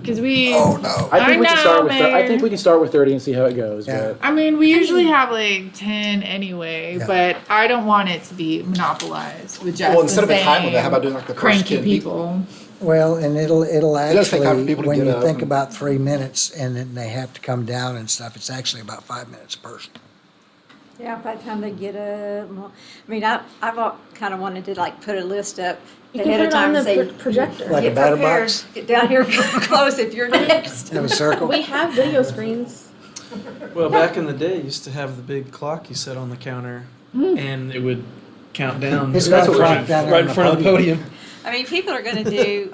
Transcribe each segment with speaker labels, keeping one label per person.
Speaker 1: Because we,
Speaker 2: Oh, no.
Speaker 3: I
Speaker 1: I
Speaker 3: think we can start
Speaker 1: know,
Speaker 3: with. thir- I think
Speaker 1: Mayor.
Speaker 3: we can start with thirty and see how it goes.
Speaker 2: Yeah.
Speaker 3: But
Speaker 1: I mean, we usually have like 10 anyway,
Speaker 2: Yeah.
Speaker 1: but I don't want it to be monopolized with just
Speaker 4: Well, instead of
Speaker 1: the
Speaker 4: a time limit,
Speaker 1: same
Speaker 4: how about doing like the first
Speaker 1: cranky
Speaker 4: 10
Speaker 1: people?
Speaker 2: Well, and it'll, it'll
Speaker 4: does take time for
Speaker 2: actually,
Speaker 4: people to
Speaker 2: when
Speaker 4: get
Speaker 2: you
Speaker 4: up
Speaker 2: think
Speaker 4: and-
Speaker 2: about three minutes and then they have to come down and stuff, it's actually about five minutes a person.
Speaker 5: Yeah, by the time they get up, well, I mean, I, I've kind of wanted to like put a list up
Speaker 6: You
Speaker 5: ahead
Speaker 6: can
Speaker 5: of
Speaker 6: put it on
Speaker 5: time,
Speaker 6: the
Speaker 5: and say,
Speaker 6: pro- projector.
Speaker 2: Like a
Speaker 5: get
Speaker 2: batter
Speaker 5: prepared,
Speaker 2: box,
Speaker 5: get down here, close if you're next.
Speaker 2: have a circle.
Speaker 6: We have video screens.
Speaker 7: Well, back in the day, you used to have the big clock you set on the counter, and it would count down
Speaker 2: It's
Speaker 3: got a
Speaker 7: right,
Speaker 2: clock down there
Speaker 7: right
Speaker 2: on
Speaker 7: in
Speaker 2: the
Speaker 7: front of the podium.
Speaker 5: I mean, people are gonna do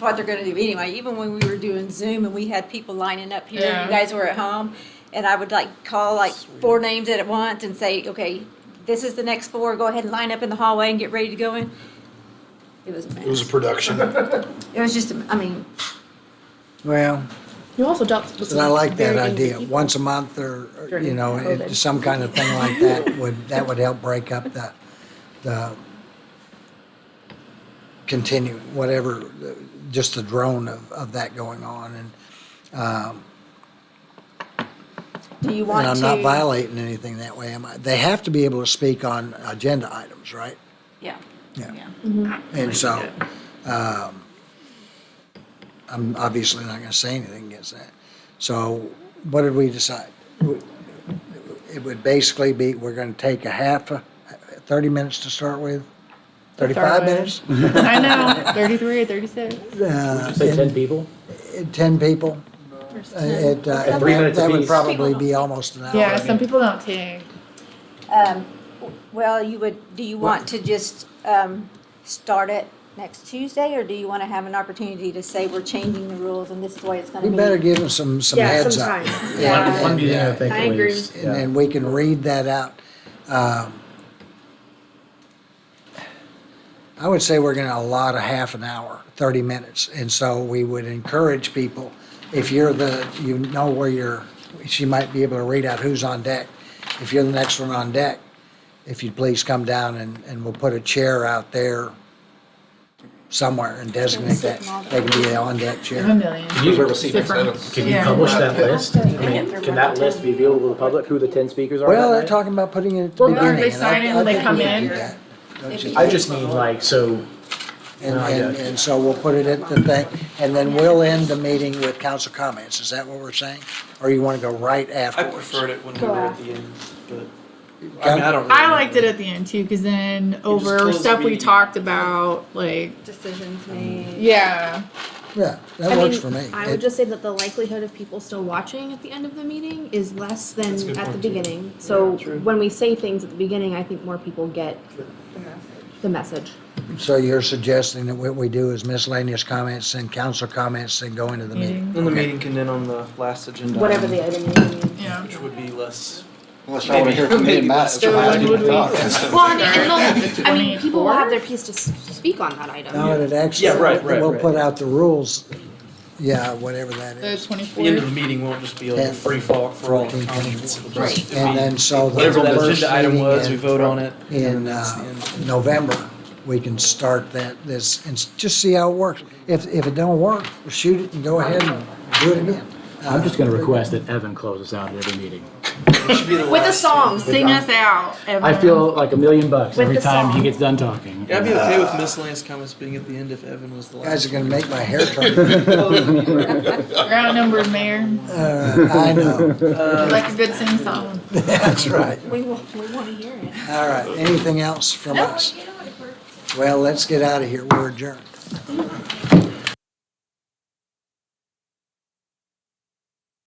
Speaker 5: what they're gonna do anyway, even when we were doing Zoom and we had people lining up here,
Speaker 1: Yeah.
Speaker 5: you guys were at home, and I would like call like four names at once and say, okay, this is the next four, go ahead and line up in the hallway and get ready to go in. It was a
Speaker 4: It was a
Speaker 5: mess.
Speaker 4: production.
Speaker 5: It was just, a- I mean,
Speaker 2: Well,
Speaker 6: You also dealt with
Speaker 2: and I like that
Speaker 6: very angry
Speaker 2: idea.
Speaker 6: people.
Speaker 2: Once a month or, or, you
Speaker 6: During
Speaker 2: know, it-
Speaker 6: COVID.
Speaker 2: some kind of thing like that would, that would help break up the, the continue, whatever, the- just the drone of, of that going on and, um,
Speaker 5: do you want
Speaker 2: and
Speaker 5: to?
Speaker 2: I'm not violating anything that way, am I? They have to be able to speak on agenda items, right?
Speaker 5: Yeah.
Speaker 2: Yeah.
Speaker 5: Yeah.
Speaker 2: And so, um, I'm obviously not gonna say anything against that. So what did we decide? It would basically be, we're gonna take a half, a- thirty minutes to start with, thirty-five
Speaker 1: with.
Speaker 2: minutes?
Speaker 1: I know, 33 or 36.
Speaker 2: Uh,
Speaker 3: say ten people.
Speaker 2: and Ten people? Uh, it, uh,
Speaker 3: And three
Speaker 2: that-
Speaker 3: minutes
Speaker 2: That would
Speaker 3: apiece.
Speaker 2: probably be almost an hour.
Speaker 1: Yeah, some people don't take.
Speaker 5: Um, Well, you would, do you want to just um, start it next Tuesday, or do you want to have an opportunity to say we're changing the rules and this is the way it's going
Speaker 2: We
Speaker 5: to be?
Speaker 2: better give them some, some
Speaker 6: Yeah,
Speaker 2: heads up.
Speaker 6: sometime.
Speaker 5: Yeah.
Speaker 3: One, one meeting, I think.
Speaker 6: I
Speaker 3: at
Speaker 6: agree.
Speaker 3: least.
Speaker 2: and then we can read that out. Um, I would say we're gonna allot a half an hour, thirty minutes, and so we would encourage people, if you're the, you know where you're, she might be able to read out who's on deck. If you're the next one on deck, if you'd please come down and, and we'll put a chair out there somewhere and designate that, they can be the on-deck
Speaker 1: There's a
Speaker 2: chair.
Speaker 1: million.
Speaker 4: We've ever seen it.
Speaker 1: Different.
Speaker 3: Can you
Speaker 1: Yeah.
Speaker 3: publish that list? I
Speaker 6: get
Speaker 3: mean,
Speaker 6: through
Speaker 3: can
Speaker 6: one
Speaker 3: that
Speaker 6: at a
Speaker 3: list
Speaker 6: time.
Speaker 3: be available to the public? Who the ten speakers are?
Speaker 2: Well,
Speaker 3: that
Speaker 2: they're
Speaker 3: night?
Speaker 2: talking about putting it at the
Speaker 1: Well, no,
Speaker 2: beginning.
Speaker 1: they
Speaker 2: and I-
Speaker 1: sign in,
Speaker 2: I
Speaker 1: they
Speaker 2: think
Speaker 1: come
Speaker 2: we can
Speaker 1: in.
Speaker 2: do that, don't
Speaker 5: If
Speaker 2: you?
Speaker 5: you-
Speaker 3: I just mean like so.
Speaker 2: And,
Speaker 3: No, I
Speaker 2: and,
Speaker 3: got
Speaker 2: and so we'll put it at the thing, and then we'll end the meeting with council comments, is that what we're saying? Or you wanna go right
Speaker 7: I
Speaker 2: afterwards?
Speaker 7: preferred it when we
Speaker 6: Go
Speaker 7: were at
Speaker 6: out.
Speaker 7: the end, but I mean, I don't. Really
Speaker 1: I liked it at the end too, because then over
Speaker 7: close the
Speaker 1: stuff we
Speaker 7: meeting.
Speaker 1: talked about, like,
Speaker 5: Decisions made.
Speaker 1: yeah.
Speaker 2: Yeah,
Speaker 6: I
Speaker 2: that works
Speaker 6: mean,
Speaker 2: for me.
Speaker 6: I
Speaker 2: It-
Speaker 6: would just say that the likelihood of people still watching at the end of the meeting is less
Speaker 7: That's
Speaker 6: than
Speaker 7: a good
Speaker 6: at the
Speaker 7: point, too.
Speaker 6: beginning. So
Speaker 7: Yeah, true.
Speaker 6: when we say things at the beginning, I think more people get the message.
Speaker 2: So you're suggesting that what we do is miscellaneous comments, and council comments, and go into the meeting?
Speaker 7: And the meeting can end on the last agenda.
Speaker 6: Whatever
Speaker 7: item,
Speaker 6: the item is.
Speaker 1: Yeah.
Speaker 7: Which would be less.
Speaker 4: Unless y'all wanna hear from me and Matt. it's
Speaker 1: So
Speaker 4: your last
Speaker 1: when would we-
Speaker 4: talk.
Speaker 6: Well, and, and they'll, I mean, people
Speaker 1: 24?
Speaker 6: will have their piece to s- speak on that item.
Speaker 2: No, and it actually.
Speaker 7: Yeah, right, right,
Speaker 2: We'll
Speaker 7: right.
Speaker 2: put out the rules, yeah, whatever that
Speaker 1: The
Speaker 2: is.
Speaker 7: The end of the
Speaker 1: 24th.
Speaker 7: meeting won't just be like
Speaker 2: Yeah.
Speaker 7: a free fall for all the
Speaker 2: 14,
Speaker 7: comments. It'll
Speaker 6: Right.
Speaker 7: just be
Speaker 2: And then so. the
Speaker 7: Whatever that
Speaker 2: first
Speaker 7: agenda item
Speaker 2: meeting
Speaker 7: was,
Speaker 2: in-
Speaker 7: we vote on it. and then
Speaker 2: in
Speaker 7: that's the
Speaker 2: uh,
Speaker 7: end.
Speaker 2: November, we can start that, this, and s- just see how it works. If, if it don't work, shoot it and go ahead and do it again.
Speaker 3: I'm just going to request that Evan close us out at every meeting.
Speaker 7: It should be the
Speaker 6: With a
Speaker 7: last
Speaker 6: song.
Speaker 1: Sing us out,
Speaker 3: I
Speaker 1: everyone.
Speaker 3: feel like a million bucks
Speaker 6: With
Speaker 3: every
Speaker 6: the
Speaker 3: time he
Speaker 6: song.
Speaker 3: gets done talking.
Speaker 7: Yeah, I'd be okay with miscellaneous comments being at the end if Evan was the
Speaker 2: Guys
Speaker 7: last.
Speaker 2: are gonna make my hair turn.
Speaker 1: You're outnumbered, Mayor.
Speaker 2: Uh, I know,
Speaker 1: Like a good sing song.
Speaker 2: that's right.
Speaker 6: We will, we want to hear it.
Speaker 2: All right, anything else from us? Well, let's get out of here, we're adjourned.